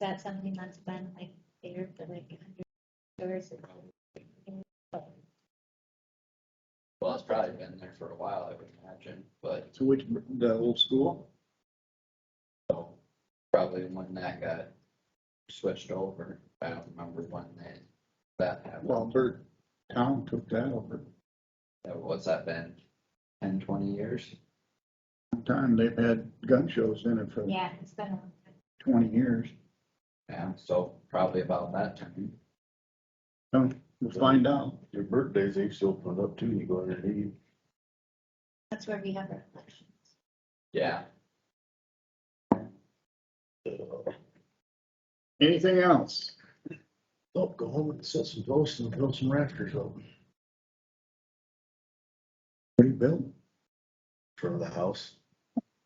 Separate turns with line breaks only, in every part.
that something that's been like there for like a hundred years?
Well, it's probably been there for a while, I would imagine, but
So which, the old school?
so probably when that got switched over, I don't remember when that, that happened.
Well, Bert Town took that over.
That- What's that been? Ten, twenty years?
Long Time, they've had gun shows in it for
Yeah, it's been a long time.
twenty years.
Yeah, so probably about that time.
So We'll find out.
Your birthdays, they used to open it up too, you go underneath.
That's where we have our elections.
Yeah,
Uh,
Anything else?
Oh, go home and set some posts and build some rafters up in
Rebuild.
front of the house.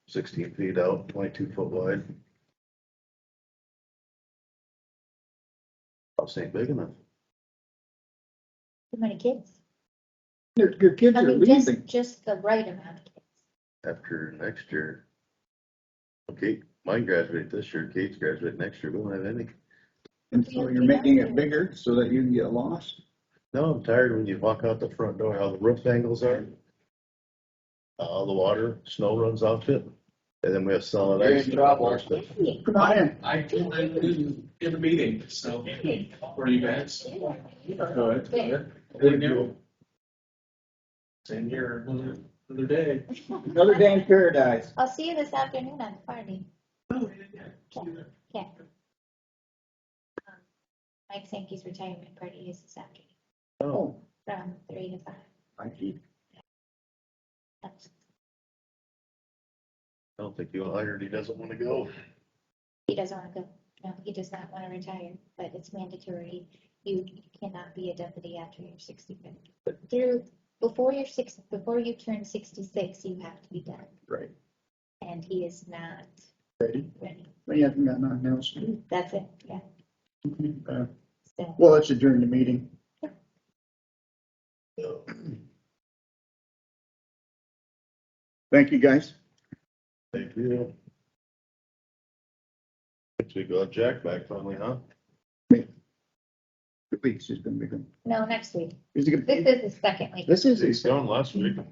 Sixteen feet out, twenty-two foot wide. House ain't big enough.
Too many kids?
Your, your kids
I
are
mean, just,
leaving.
just the right amount of kids.
after next year. Okay, mine graduated this year, Kate's graduated next year, we won't have any.
And so you're making it bigger so that you can get lost.
No, I'm tired when you walk out the front door, how the roof angles are. Uh, the water, snow runs off it, and then we have solid
You're
ice.
in trouble.
Come on in.
I told them in, in the meeting, so, were you guys? Good. good. They knew. Same here, another, another day.
Another day in paradise.
I'll see you this afternoon at the party.
Oh, yeah, yeah.
Mike Sankey's retirement party is this afternoon
Oh,
from three to five.
I keep-
That's-
I don't think he'll hire, it, he doesn't wanna go.
He doesn't want to go. No, he does not want to retire, but it's mandatory. You cannot be a deputy after you're sixty-five. Through, before you're six, before you turn sixty-six, you have to be done.
Right.
And he is not
Ready?
ready.
We haven't got nothing else to do.
That's it, yeah.
Uh,
So,
Well, let's adjourn the meeting. Thank you, guys.
Thank you. Guess we got Jack back finally, huh?
The weeks is gonna be good.
no, next week.
Is it gonna
This
be-
is the second week.
This is,
He's
his-
gone last week.